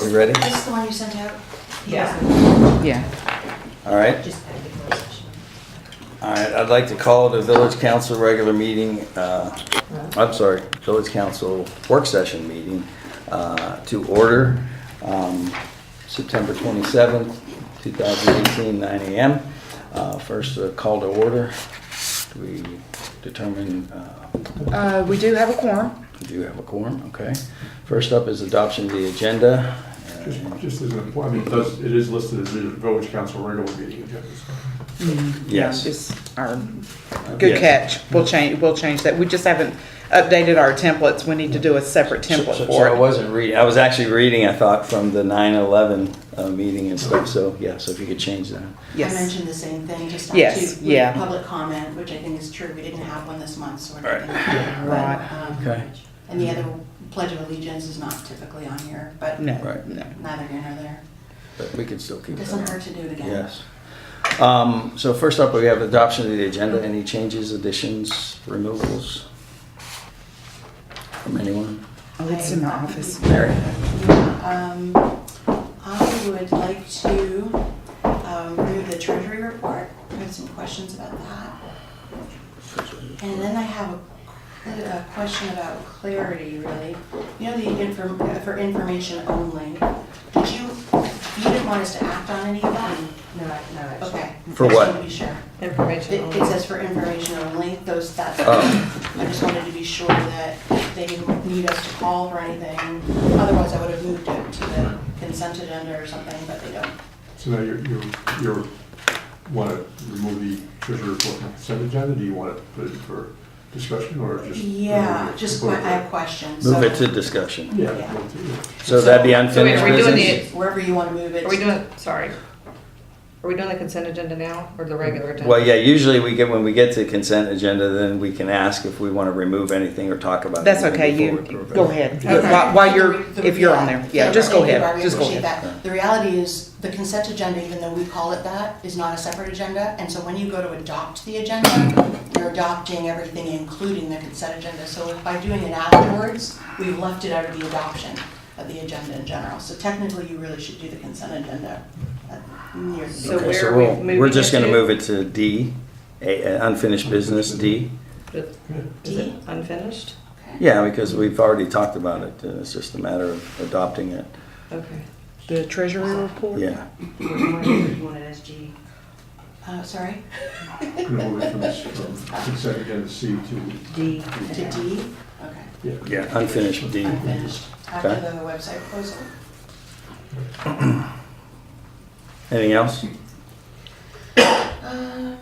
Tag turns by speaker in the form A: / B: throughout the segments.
A: We ready?
B: This is the one you sent out?
C: Yeah.
D: Yeah,
A: All right. All right, I'd like to call the village council regular meeting, uh, I'm sorry, village council work session meeting uh, to order, um, September 27th, 2018, 9 a.m. Uh, First uh, call to order, Do we determine, uh,
D: uh, we do have a quorum.
A: do you have a quorum? Okay. First up is adoption of the agenda.
E: Just just as an important, I mean, it does, it is listed as the village council regular meeting agenda.
A: Yes. Uh,
D: Yeah, It's our, good catch. We'll change, we'll change that. We just haven't updated our templates. We need to do a separate
A: So- so-
D: template
A: So I
D: for it.
A: wasn't reading, I was actually reading, I thought, from the 9/11 uh, meeting and stuff, so, yeah, so if you could change that.
B: I
D: Yes.
B: mentioned the same thing, just on
D: Yes,
B: two,
D: yeah.
B: with public comment, which I think is true, we didn't have one this month, so we're
A: Right.
B: not gonna. have one.
D: Right.
B: Um,
A: Okay.
B: And the other pledge of allegiance is not typically on here, but
D: No,
A: Right.
D: no.
B: neither here nor there.
A: But we can still keep that.
B: Doesn't hurt to do it again.
A: Yes. Um, So first up, we have adoption of the agenda. Any changes, additions, removals from anyone?
D: Oh, it's in the office.
A: Mary?
B: Um, I would like to um, do the treasury report, I have some questions about that. And then I have a- a question about clarity, really. You know, the inform, uh, for information only, did you, you didn't want us to act on any of that?
C: No, no, actually.
B: Okay.
A: For
B: I just
A: what?
B: wanted to be sure.
C: Information
B: It
C: only.
B: it says for information only, those, that,
A: Oh.
B: I just wanted to be sure that they didn't need us to call for anything. Otherwise, I would have moved it to the consent agenda or something, but they don't.
E: So now you're, you're, you're, want to remove the treasurer report from the consent agenda? Do you want to put it for discussion or just?
B: Yeah,
E: remove it?
B: just, que- I
E: Put it
B: have questions.
A: Move it
B: so-
A: to discussion.
E: Yeah.
B: Yeah.
E: move it to-
A: So that'd be
B: So
A: unfinished
B: wait, are we doing
A: business?
B: Wherever you want to move it.
C: Are we doing, sorry, are we doing the consent agenda now or the regular agenda?
A: Well, yeah, usually we get, when we get to consent agenda, then we can ask if we want to remove anything or talk about
D: That's
A: anything
D: okay. You,
A: before we approve it.
D: go ahead.
C: Okay.
D: Uh, While, while you're,
B: The- the-
D: if you're on there. Yeah, just go
B: thank you, Barbie,
D: ahead.
B: I
D: Just go
B: appreciate
D: ahead.
B: that. The reality is, the consent agenda, even though we call it that, is not a separate agenda, and so when you go to adopt the agenda, you're adopting everything, including the consent agenda, so by doing it afterwards, we've left it out of the adoption of the agenda in general, so technically, you really should do the consent agenda uh, near the
C: So
B: beginning.
A: Okay, so
C: where are we
A: we'll- We're
C: moving
A: just
C: it
A: going to
C: to?
A: move it to D, A- uh, unfinished business, D.
C: Is is it unfinished?
B: Okay.
A: Yeah, because we've already talked about it, uh, it's just a matter of adopting it,
C: Okay.
D: The treasury report?
A: yeah.
B: Uh, sorry,
E: Remove it from this- from consent agenda C to,
C: D.
B: to D, okay,
E: yeah.
A: Yeah, unfinished D.
B: unfinished, after
A: Okay.
B: the website proposal.
A: Anything else?
B: Um,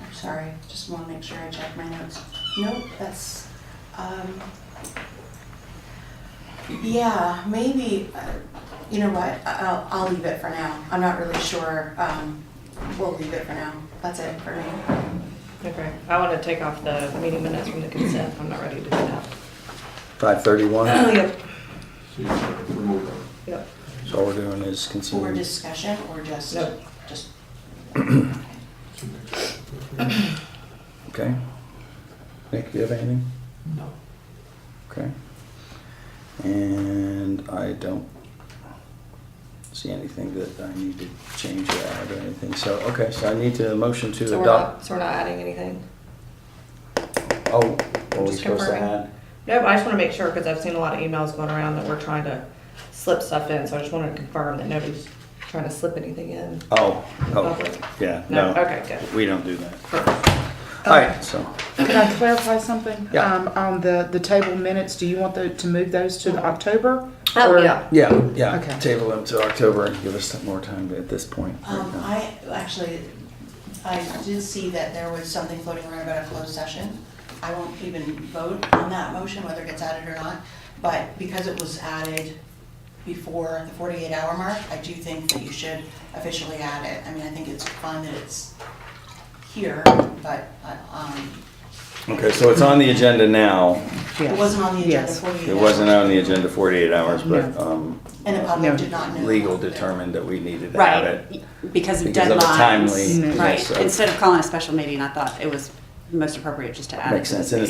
B: I'm sorry, just want to make sure I check my notes. Nope, that's, um, yeah, maybe, uh, you know what, I- I'll, I'll leave it for now. I'm not really sure, um, we'll leave it for now. That's it for me.
C: Okay, I want to take off the meeting minutes from the consent, I'm not ready to do that.
A: 531,
E: So
C: Yep.
E: you want to remove that.
C: Yep.
A: so all we're doing is
B: For
A: considering,
B: discussion or just,
C: Nope.
B: just,
E: So next-
A: okay? Nick, do you have anything?
E: No.
A: Okay. And I don't see anything that I need to change or add or anything, so, okay, so I need to motion
C: So
A: to
C: we're
A: adopt.
C: not, so we're not adding anything?
A: Oh, what are we
C: Just
A: supposed to
C: confirming.
A: add?
C: No, but I just want to make sure, because I've seen a lot of emails going around that we're trying to slip stuff in, so I just wanted to confirm that nobody's trying to slip anything in.
A: Oh,
C: Public.
A: oh, yeah, no.
C: Okay, good.
A: We don't do that. All right, so,
D: Can I clarify something?
A: Yeah.
D: Um, on the, the table minutes, do you want the, to move those to the October?
C: Oh,
D: Or-
C: yeah.
A: yeah, yeah,
D: Okay.
A: table them to October and give us more time at this point.
B: Um, I, actually, I did see that there was something floating around about a closed session. I won't even vote on that motion, whether it gets added or not, but because it was added before the forty-eight hour mark, I do think that you should officially add it. I mean, I think it's fine that it's here, but, uh, um,
A: Okay, so it's on the agenda now.
D: Yes.
B: it wasn't on the agenda
D: Yes.
B: forty-eight hours.
A: It wasn't on the agenda 48 hours, but
D: No.
A: um,
B: And the
D: No.
B: public did not know.
A: legal determined that we needed to have
F: Right,
A: it.
F: because of
A: Because of the
F: deadlines.
A: timely-
D: Mm.
F: Right,
A: yes, so-
F: instead of calling a special meeting, I thought it was most appropriate just to add it
A: Makes
F: to this
A: sense, and it's